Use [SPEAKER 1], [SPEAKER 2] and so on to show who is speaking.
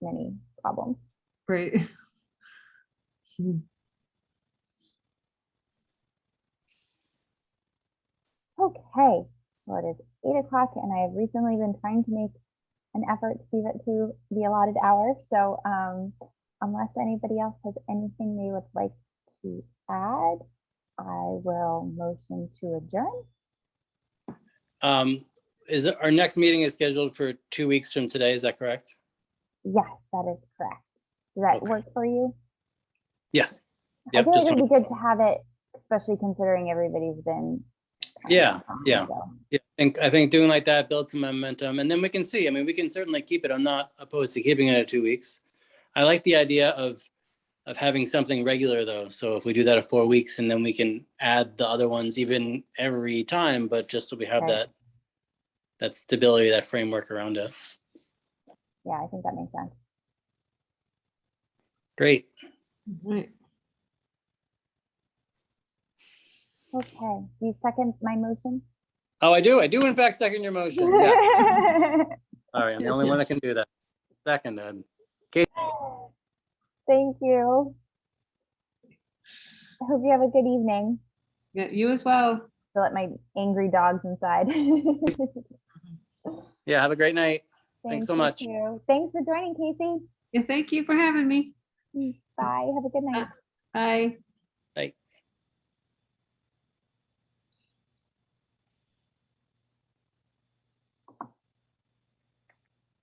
[SPEAKER 1] many problems.
[SPEAKER 2] Great. Hmm.
[SPEAKER 1] Okay, well, it is eight o'clock and I have recently been trying to make an effort to leave it to the allotted hour. So um, unless anybody else has anything they would like to add, I will motion to adjourn.
[SPEAKER 3] Um, is, our next meeting is scheduled for two weeks from today, is that correct?
[SPEAKER 1] Yes, that is correct. Does that
[SPEAKER 3] Okay.
[SPEAKER 1] work for you?
[SPEAKER 3] Yes.
[SPEAKER 1] I
[SPEAKER 3] Yep,
[SPEAKER 1] feel like
[SPEAKER 3] just
[SPEAKER 1] it'd
[SPEAKER 3] wanna-
[SPEAKER 1] be good to have it, especially considering everybody's been. kind of
[SPEAKER 3] Yeah,
[SPEAKER 1] behind,
[SPEAKER 3] yeah.
[SPEAKER 1] so.
[SPEAKER 3] Yeah, I think, I think doing like that builds some momentum and then we can see, I mean, we can certainly keep it. I'm not opposed to keeping it at two weeks. I like the idea of, of having something regular though. So if we do that at four weeks and then we can add the other ones even every time, but just so we have
[SPEAKER 1] Right.
[SPEAKER 3] that, that stability, that framework around it.
[SPEAKER 1] Yeah, I think that makes sense.
[SPEAKER 3] Great.
[SPEAKER 2] Right.
[SPEAKER 1] Okay, do you second my motion?
[SPEAKER 3] Oh, I do, I do in fact second your motion. Yes. Sorry, I'm the only one that can do that. Seconded.
[SPEAKER 1] Thank you. I hope you have a good evening.
[SPEAKER 2] Yeah, you as well.
[SPEAKER 1] To let my angry dogs inside.
[SPEAKER 3] Yeah, have a great night.
[SPEAKER 1] Thank
[SPEAKER 3] so
[SPEAKER 1] you
[SPEAKER 3] much.
[SPEAKER 1] too. Thanks for joining, Casey.
[SPEAKER 2] Yeah, thank you for having me.
[SPEAKER 1] Bye, have a good night.
[SPEAKER 2] Bye.
[SPEAKER 3] Bye.